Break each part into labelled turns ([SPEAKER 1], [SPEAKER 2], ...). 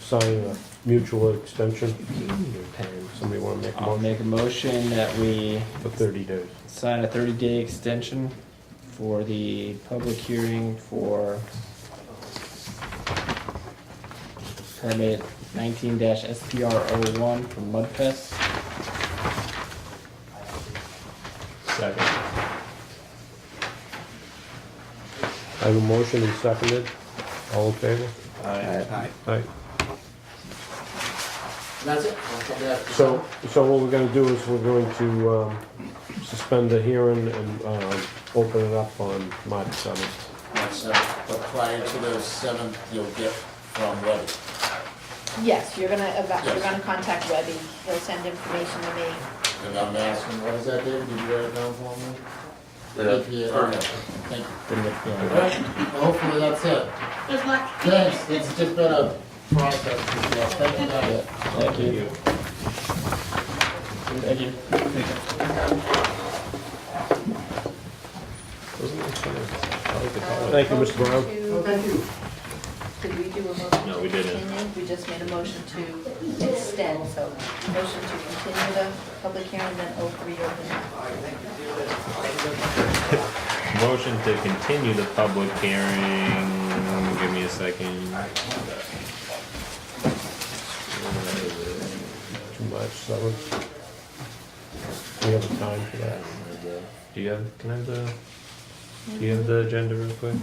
[SPEAKER 1] sign a mutual extension? Somebody wanna make a
[SPEAKER 2] I'll
[SPEAKER 1] motion
[SPEAKER 2] make a motion that we
[SPEAKER 1] for thirty days?
[SPEAKER 2] sign a thirty-day extension for the public hearing for permit nineteen dash SPR oh one for Mudfest.
[SPEAKER 3] Second.
[SPEAKER 1] I have a motion and seconded, all in favor?
[SPEAKER 3] Aye.
[SPEAKER 1] Aye.
[SPEAKER 4] That's it. I'll come back to
[SPEAKER 1] So, so what we're gonna do is we're going to, um, suspend the hearing and, um, open it up on March seventh.
[SPEAKER 4] That's it. But prior to the seventh, you'll get from Webby.
[SPEAKER 5] Yes, you're gonna, eva- you're
[SPEAKER 4] Yes.
[SPEAKER 5] gonna contact Webby, he'll send information to me.
[SPEAKER 4] And I'm asking, what is that, David? Did you write it down for me? EPA, okay. Thank you. Alright, Hopefully that's it.
[SPEAKER 6] Good luck.
[SPEAKER 4] Thanks. It's just been a process. Yeah, Thank you. Nadia.
[SPEAKER 2] Thank you. Thank you.
[SPEAKER 1] Thank you, Mr. Brown.
[SPEAKER 5] Oh, thank you. Did we do a motion?
[SPEAKER 3] No,
[SPEAKER 5] to
[SPEAKER 3] we didn't.
[SPEAKER 5] continue? We just made a motion to extend, so motion to continue the public hearing, then oh o- reopen it.
[SPEAKER 3] Motion to continue the public hearing, give me a second.
[SPEAKER 1] To March seventh. We have a time for that.
[SPEAKER 3] Do you have, can I have the, do you have the agenda real quick?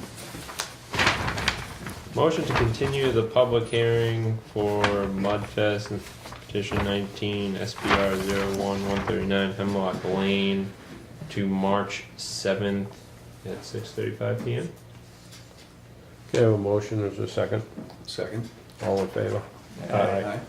[SPEAKER 3] Motion to continue the public hearing for Mudfest and petition nineteen SPR zero one one thirty-nine Hemlock Lane to March seventh at six thirty-five PM.
[SPEAKER 1] Okay, I have a motion, is there a second?
[SPEAKER 7] Second.
[SPEAKER 1] All in favor?
[SPEAKER 7] Aye.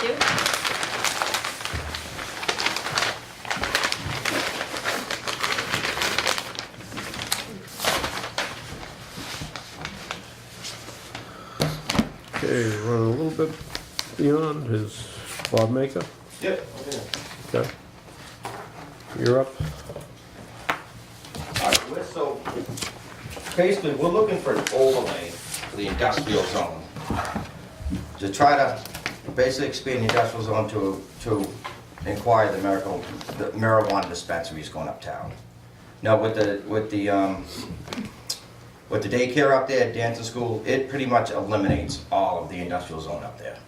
[SPEAKER 5] Thank you.
[SPEAKER 1] Okay, running a little bit beyond his Bob Maker.
[SPEAKER 7] Yep.
[SPEAKER 1] Okay. You're up.
[SPEAKER 7] All right, we're- so basically, we're looking for an overlay for the industrial zone. To try to basically expand the industrial zone to, to inquire the miracle, the marijuana dispensaries going uptown. Now, with the, with the, um, with the daycare up there, dancing school, it pretty much eliminates all of the industrial zone up there.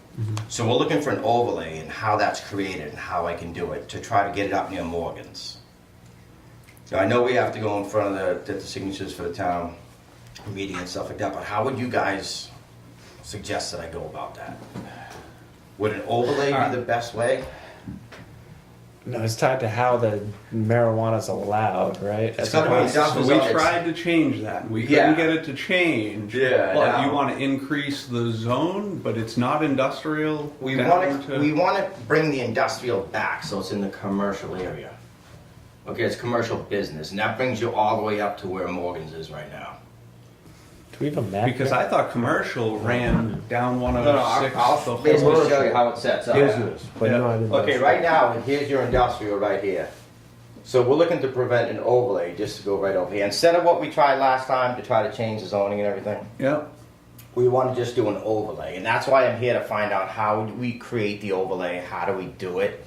[SPEAKER 7] So we're looking for an overlay and how that's created and how I can do it to try to get it up near Morgan's. Now, I know we have to go in front of the, get the signatures for the town meeting and stuff like that, but how would you guys suggest that I go about that? Would an overlay
[SPEAKER 8] Uh,
[SPEAKER 7] be the best way?
[SPEAKER 2] No, it's tied to how the marijuana's allowed, right?
[SPEAKER 7] It's gotta be
[SPEAKER 8] So
[SPEAKER 7] industrial
[SPEAKER 8] we
[SPEAKER 7] zone.
[SPEAKER 8] tried to change that. We
[SPEAKER 7] Yeah.
[SPEAKER 8] couldn't get it to change.
[SPEAKER 7] Yeah,
[SPEAKER 8] But
[SPEAKER 7] no.
[SPEAKER 8] you want to increase the zone, but it's not industrial.
[SPEAKER 7] We
[SPEAKER 8] down
[SPEAKER 7] want to,
[SPEAKER 8] to-
[SPEAKER 7] we want to bring the industrial back, so it's in the commercial area. Okay, it's commercial business, and that brings you all the way up to where Morgan's is right now.
[SPEAKER 2] Do we have a map?
[SPEAKER 8] Because
[SPEAKER 2] here?
[SPEAKER 8] I thought commercial ran down one
[SPEAKER 7] No, no,
[SPEAKER 8] oh
[SPEAKER 7] I'll
[SPEAKER 8] six.
[SPEAKER 7] I'll basically show you how it sets up.
[SPEAKER 1] Business, but
[SPEAKER 8] Yeah.
[SPEAKER 1] not industrial.
[SPEAKER 7] Okay, right now, here's your industrial right here. So we're looking to prevent an overlay just to go right over here. Instead of what we tried last time to try to change the zoning and everything,
[SPEAKER 8] Yeah,
[SPEAKER 7] we want to just do an overlay. And that's why I'm here to find out how do we create the overlay, how do we do it,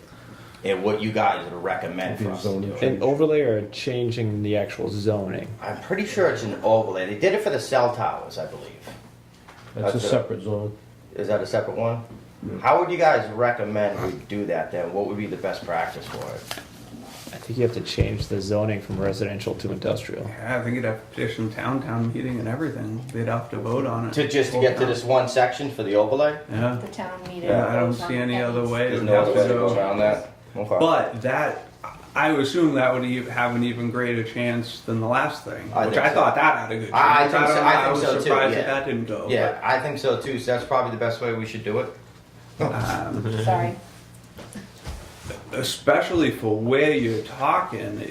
[SPEAKER 7] and what you guys would recommend for us to do.
[SPEAKER 2] An overlay or changing the actual zoning?
[SPEAKER 7] I'm pretty sure it's an overlay. They did it for the cell towers, I believe.
[SPEAKER 1] That's a
[SPEAKER 7] That's it.
[SPEAKER 1] separate zone.
[SPEAKER 7] Is that a separate one? How would you guys recommend we do that then? What would be the best practice for it?
[SPEAKER 2] I think you have to change the zoning from residential to industrial.
[SPEAKER 8] Yeah, I think you'd have to petition town, town meeting and everything. They'd have to vote on it.
[SPEAKER 7] To just to get to this one section for the overlay?
[SPEAKER 8] Yeah,
[SPEAKER 5] The town meeting.
[SPEAKER 8] yeah, I don't see any other way.
[SPEAKER 7] There's
[SPEAKER 8] It'd
[SPEAKER 7] no
[SPEAKER 8] have
[SPEAKER 7] other
[SPEAKER 8] to
[SPEAKER 7] way to
[SPEAKER 8] go-
[SPEAKER 7] go around that? Okay.
[SPEAKER 8] But that, I would assume that would e- have an even greater chance than the last thing,
[SPEAKER 7] I
[SPEAKER 8] which
[SPEAKER 7] think
[SPEAKER 8] I
[SPEAKER 7] so.
[SPEAKER 8] thought that had a good chance.
[SPEAKER 7] I- I think
[SPEAKER 8] don't
[SPEAKER 7] so-
[SPEAKER 8] know,
[SPEAKER 7] I think
[SPEAKER 8] was
[SPEAKER 7] so too,
[SPEAKER 8] surprised
[SPEAKER 7] yeah.
[SPEAKER 8] that that didn't go.
[SPEAKER 7] Yeah, I think so too, so that's probably the best way we should do it.
[SPEAKER 8] but, um,
[SPEAKER 5] Sorry.
[SPEAKER 8] Especially for where you're talking,